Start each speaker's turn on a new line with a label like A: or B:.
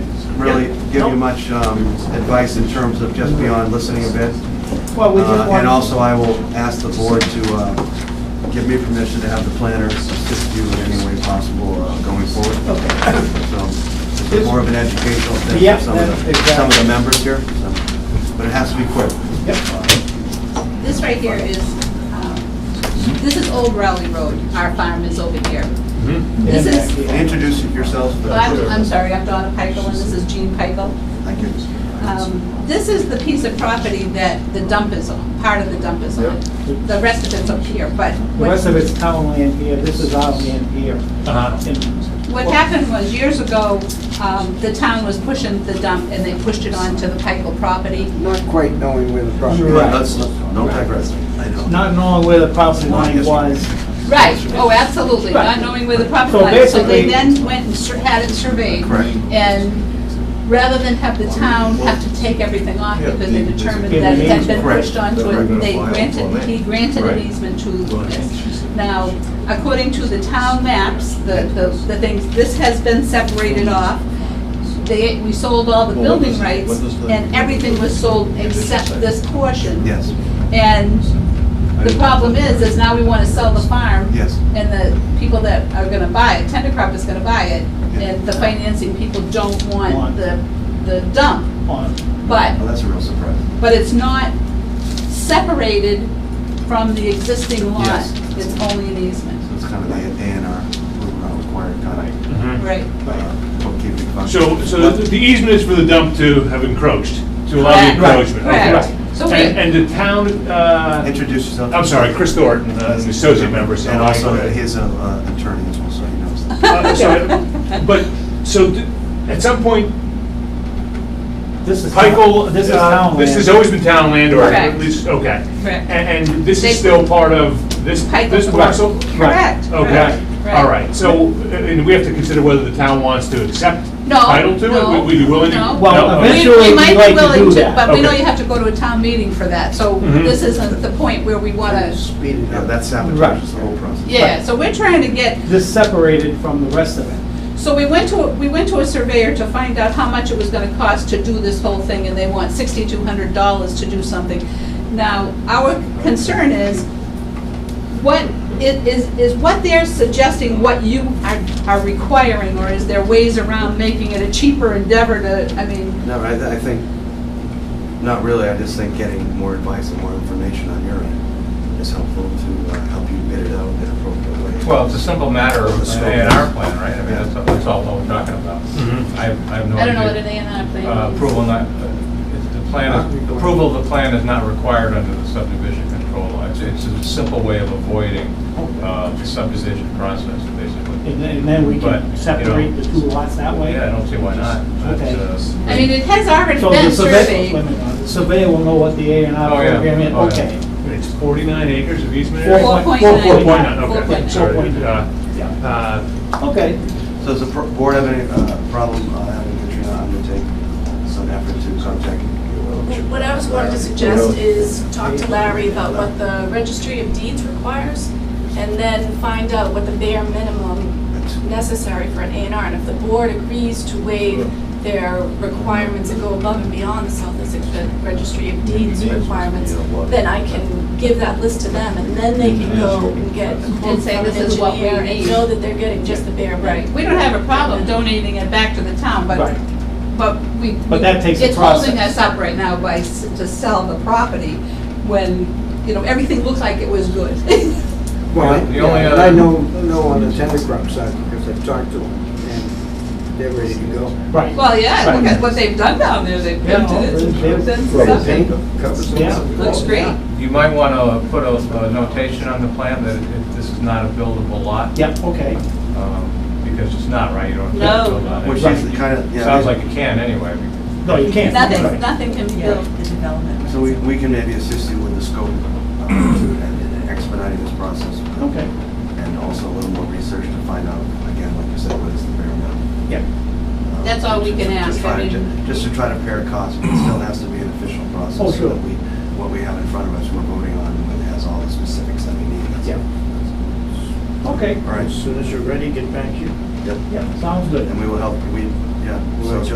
A: really give
B: Nope.
A: you much um, advice in terms of just beyond listening a bit.
B: Well, we
A: Uh,
B: just
A: And
B: want,
A: also, I will ask the board to uh, give me permission to have the planner assist you in any way possible uh, going forward.
B: okay,
A: So it's more of an educational thing
B: Yeah,
A: for some of the,
B: exactly.
A: some of the members here, so, but it has to be quick.
B: yep,
C: This right here is, um, this is Old Rowley Road, our farm is over here.
B: Mm-hmm.
C: This is,
A: And Introduce yourselves. but-
C: well, I'm, I'm sorry, I'm Donna Pikel and this is Jean Pikel.
A: Thank you.
C: Um, This is the piece of property that the dump is on, part of the dump is on. The rest of it's up here, but
B: the rest of
C: what,
B: it's town land here, this is our land here. And-
C: what happened was years ago, um, the town was pushing the dump and they pushed it onto the Pikel property.
D: not quite knowing where the property
A: Good,
D: is.
B: Right.
A: Let's, no digress, I know.
B: Not knowing where the property line was,
C: Right, oh, absolutely, not
B: Right.
C: knowing where the property
B: So
C: line is. So they
B: basically-
C: then went and sur- had it surveyed.
A: Correct.
C: And rather than have the town have to take everything off
A: Yeah,
C: because they
A: the-
C: determined
B: the-
C: that it had been
A: Correct.
C: pushed onto it, they granted, he granted an
A: Right.
C: easement to this. Now, according to the town maps, the, the the things, this has been separated off. They, we sold all
E: Well,
C: the
E: what
C: building
E: does-
C: rights
E: what does the-
C: and everything was sold except this portion.
A: Yes,
C: And the problem is, is now we want to sell the farm.
A: yes.
C: And the people that are gonna buy it, Tender Crop is gonna buy it, and the financing people don't want
B: Want.
C: the, the dump.
B: on,
C: But,
A: Well, that's a real surprise.
C: but it's not separated from the existing lot.
A: Yes.
C: It's only an easement,
A: So it's kind of the A and R required kind of
C: right?
A: uh, bookkeeping function.
F: Mm-hmm. So, so the easement is for the dump to have encroached, to allow
C: Correct.
F: the encroachment? okay.
C: Correct. So we-
F: And, and the town, uh,
A: Introduce yourself.
F: I'm sorry, Chris Thornton, uh, an associate member, so.
A: And
F: I-
A: also his uh, uh, attorney as well, so he knows. that.
F: Uh, so- But, so th- at some point,
B: this is.
F: Pikel.
B: This is
F: uh,
B: town land.
F: This has always been town land, or
C: Correct.
F: at least, okay.
C: Correct.
F: And, and this
C: They-
F: is still part of this,
C: Pikel.
F: this parcel?
C: Correct.
F: Okay, all right, so, uh, and we have to consider whether the town wants to accept
C: No,
F: title to it?
C: no,
F: Would- Would you be willing to?
C: no.
B: Well,
F: No? Okay.
C: We-
B: eventually-
C: We
B: we'd
C: might
B: like to
C: be willing
B: do
C: to,
B: that.
C: but we know
F: Okay.
C: you have to go to a town meeting for that, so
F: Mhm.
C: this isn't the point where we wanna,
D: Speed it
A: Yeah,
D: up.
A: that sabotages the whole process.
C: yeah, so we're trying to get
B: This separated from the rest of it.
C: So we went to, we went to a surveyor to find out how much it was gonna cost to do this whole thing, and they want sixty-two hundred dollars to do something. Now, our concern is, what, it is, is what they're suggesting, what you are, are requiring, or is there ways around making it a cheaper endeavor to, I mean,
A: No, I, I think, not really, I just think getting more advice and more information on your end is helpful to uh, help you bid it out in an appropriate way.
G: Well, it's a simple matter Mm-hmm. of
A: Scope.
G: an A and R plan, right? I mean, that's, that's all we're talking about.
F: Mhm.
G: I have, I have no
C: I
G: idea.
C: don't know what an A and R
G: Uh,
C: plan is.
G: Approval not, it's the plan, is- approval of the plan is not required under the subdivision control law. It's, it's a simple way of avoiding, uh, the subdivision process, basically.
B: And then, and then we
G: But, you
B: can
G: know,
B: separate the two lots that way.
G: Yeah, I don't see why not.
B: Okay.
G: That's, uh,
C: I mean, it has already
B: So the
C: been
B: surveyor,
C: surveyed.
B: wait a minute, the surveyor will know what the A and R
G: Oh, yeah.
B: program is,
G: Oh, yeah.
B: okay.
F: It's 49 acres of easement
B: Four
F: area?
C: Four point
B: Four-
C: nine.
B: four point
F: nine, okay.
C: Four point nine.
F: Sorry, uh,
B: Yeah.
F: uh,
B: Okay,
A: So does the pro- board have any uh, problem uh, having Katrina undertake some effort to contact? you?
H: What I was going to suggest is talk to Larry about what the registry of deeds requires, and then find out what the bare minimum necessary for an A and R. And if the board agrees to waive their requirements and go above and beyond the South Essex Re- Registry of Deeds requirements, then I can give that list to them, and then they can go and get a quote
C: And say,
H: from an
C: "This is what we
H: engineer and
C: need."
H: know that they're getting just the bare
C: Right,
H: minimum.
C: we don't have a problem donating it back to the town, but
B: right.
C: But we.
B: But that takes a
C: It's holding
B: process.
C: us up right now by, s- to sell the property when, you know, everything looked like it was good.
D: Well, I-
G: The only
D: yeah, and I
G: other-
D: know, know on the tender crop side, because I've talked to them, and they're ready to go.
B: Right.
C: Well, yeah, look
B: Right.
C: at what they've done down there, they've
B: Yeah,
C: painted it,
B: really, yeah.
C: they've done
D: Rubber paint
C: something.
D: covers it.
B: Yeah.
C: Looks great.
G: You might want to put a a notation on the plan that it- this is not a buildable lot.
B: Yep, okay.
G: um, Because it's not, right? You don't.
C: No.
G: build on it.
A: Which is the kind of, yeah.
G: Sounds like it can anyway. because-
B: No, you can't.
C: Nothing,
B: Right.
C: nothing can be built.
A: So we, we can maybe assist you with the scope uh, and expediting this process.
B: Okay,
A: And also a little more research to find out, again, like you said, what is the bare minimum.
B: yeah.
A: Um,
C: That's all we can
A: Just
C: ask, I
A: try to,
C: mean,
A: just to try to pare costs, but it still has to be an official process.
B: Oh,
A: so
B: sure.
A: that we- What we have in front of us, we're voting on, and it has all the specifics that we need. That's-
B: Yeah. Okay,
A: All right,
D: As soon as you're ready, get back here.
A: yep.
B: yeah, sounds good.
A: And we will help, we, yeah. so-